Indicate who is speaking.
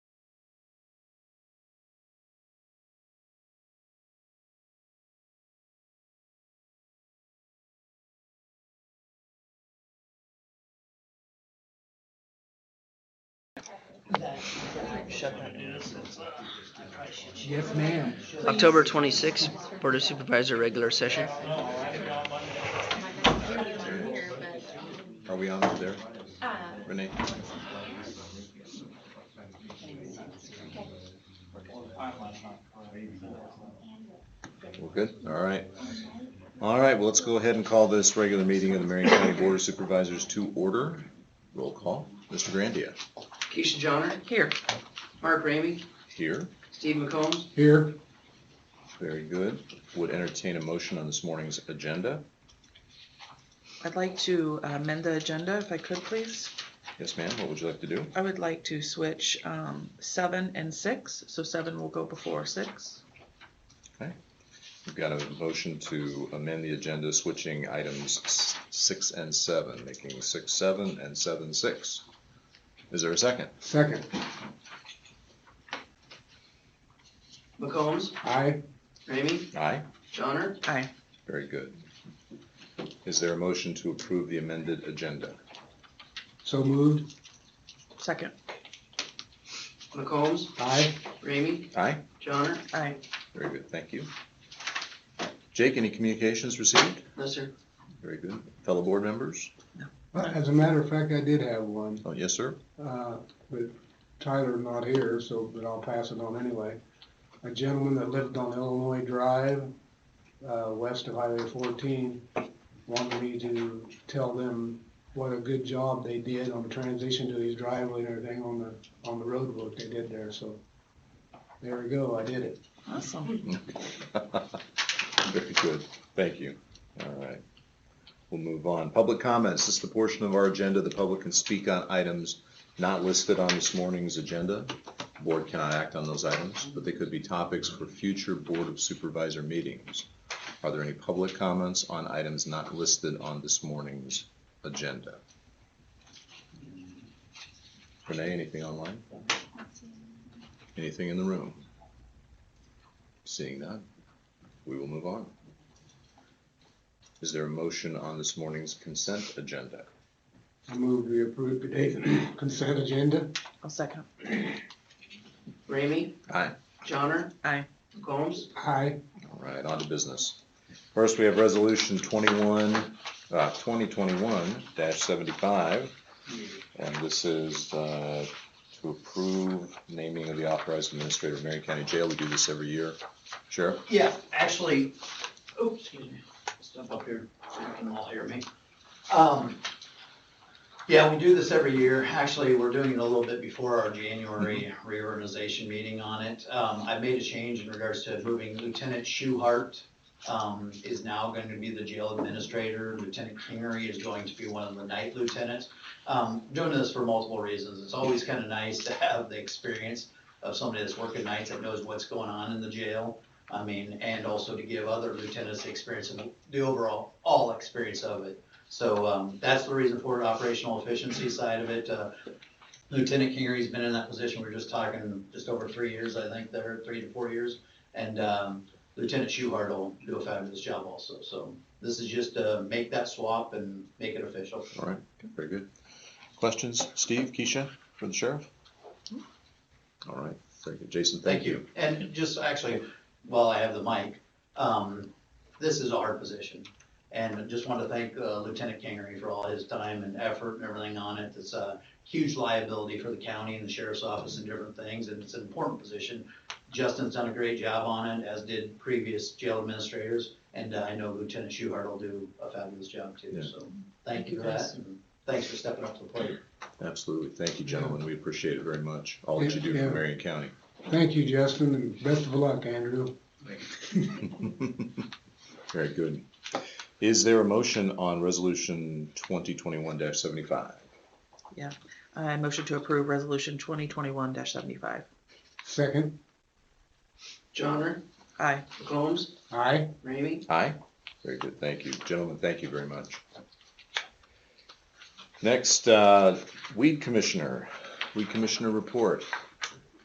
Speaker 1: that shut that nuisance.
Speaker 2: Yes, ma'am.
Speaker 3: October 26th, Board of Supervisor regular session.
Speaker 4: Are we on up there,
Speaker 5: Uh,
Speaker 4: Renee? We're good, all right. All right, well, let's go ahead and call this regular meeting of the Marion County Board of Supervisors to order. Roll call, Mr. Grandia,
Speaker 3: Keisha Johnner. Here. Mark Ramey.
Speaker 4: here,
Speaker 3: Steve McCombs.
Speaker 2: Here,
Speaker 4: very good. Would entertain a motion on this morning's agenda.
Speaker 6: I'd like to uh, amend the agenda if I could, please.
Speaker 4: Yes, ma'am, what would you like to do?
Speaker 6: I would like to switch um, seven and six, so seven will go before six.
Speaker 4: We've got a motion to amend the agenda, switching items s- six and seven, making six, seven, and seven, six. Is there a second?
Speaker 2: second.
Speaker 3: McCombs.
Speaker 2: Aye,
Speaker 3: Ramey.
Speaker 4: Aye,
Speaker 3: Johnner.
Speaker 6: Aye.
Speaker 4: very good. Is there a motion to approve the amended agenda?
Speaker 2: so moved.
Speaker 6: Second.
Speaker 3: McCombs.
Speaker 2: Aye,
Speaker 3: Ramey.
Speaker 4: Aye,
Speaker 3: Johnner.
Speaker 6: Aye.
Speaker 4: very good, thank you. Jake, any communications received?
Speaker 3: No, sir.
Speaker 4: Very good. Fellow board members?
Speaker 2: Well, as a matter of fact, I did have one,
Speaker 4: Oh, yes, sir?
Speaker 2: uh, but Tyler not here, so, but I'll pass it on anyway. A gentleman that lived on Illinois Drive, uh, west of Highway fourteen, wanted me to tell them what a good job they did on the transition to these driveway and everything on the, on the road work they did there, so. There we go, I did it.
Speaker 6: Awesome.
Speaker 4: Very good, thank you. All right. We'll move on. Public comments, this is the portion of our agenda the public can speak on items not listed on this morning's agenda. Board cannot act on those items, but they could be topics for future Board of Supervisor meetings. Are there any public comments on items not listed on this morning's agenda? Renee, anything online? Anything in the room? Seeing none, we will move on. Is there a motion on this morning's consent agenda?
Speaker 2: I move we approve today's consent agenda.
Speaker 6: I'll second.
Speaker 3: Ramey.
Speaker 4: Aye.
Speaker 3: Johnner.
Speaker 6: Aye.
Speaker 3: McCombs.
Speaker 2: Aye,
Speaker 4: All right, on to business. First, we have resolution twenty-one, uh, twenty twenty-one seventy-five. And this is, uh, to approve naming of the authorized administrator of Marion County Jail. We do this every year. Sheriff?
Speaker 7: Yeah, actually, oops, excuse me, step up here, so you can all hear me. Um, yeah, we do this every year. Actually, we're doing it a little bit before our January reorganization meeting on it. Um, I've made a change in regards to moving Lieutenant Schuhart, um, is now going to be the jail administrator. Lieutenant Kingery is going to be one of the night lieutenants. Um, doing this for multiple reasons. It's always kind of nice to have the experience of somebody that's working nights that knows what's going on in the jail. I mean, and also to give other lieutenants the experience and the overall, all experience of it. So, um, that's the reason for it, operational efficiency side of it. Uh, Lieutenant Kingery's been in that position, we were just talking, just over three years, I think, there, three to four years. And, um, Lieutenant Schuhart will do a fabulous job also, so this is just to make that swap and make it official.
Speaker 4: All right, very good. Questions? Steve, Keisha, for the sheriff? All right, very good. Jason, thank you.
Speaker 7: And just actually, while I have the mic, um, this is a hard position. And I just want to thank uh, Lieutenant Kingery for all his time and effort and everything on it. It's a huge liability for the county and the sheriff's office and different things, and it's an important position. Justin's done a great job on it, as did previous jail administrators, and uh, I know Lieutenant Schuhart will do a fabulous job too,
Speaker 4: Yeah.
Speaker 7: so thank you for that. and Thanks for stepping up to the plate.
Speaker 4: Absolutely. Thank you, gentlemen. We appreciate it very much, all that you do
Speaker 2: Yeah.
Speaker 4: for Marion County.
Speaker 2: thank you, Justin, and best of luck, Andrew.
Speaker 4: Very good. Is there a motion on resolution twenty twenty-one seventy-five?
Speaker 6: I motion to approve resolution twenty twenty-one seventy-five.
Speaker 2: Second,
Speaker 3: Johnner.
Speaker 6: Aye.
Speaker 3: McCombs.
Speaker 2: aye,
Speaker 3: Ramey.
Speaker 4: Aye. Very good, thank you. Gentlemen, thank you very much. Next, uh, weed commissioner, weed commissioner report.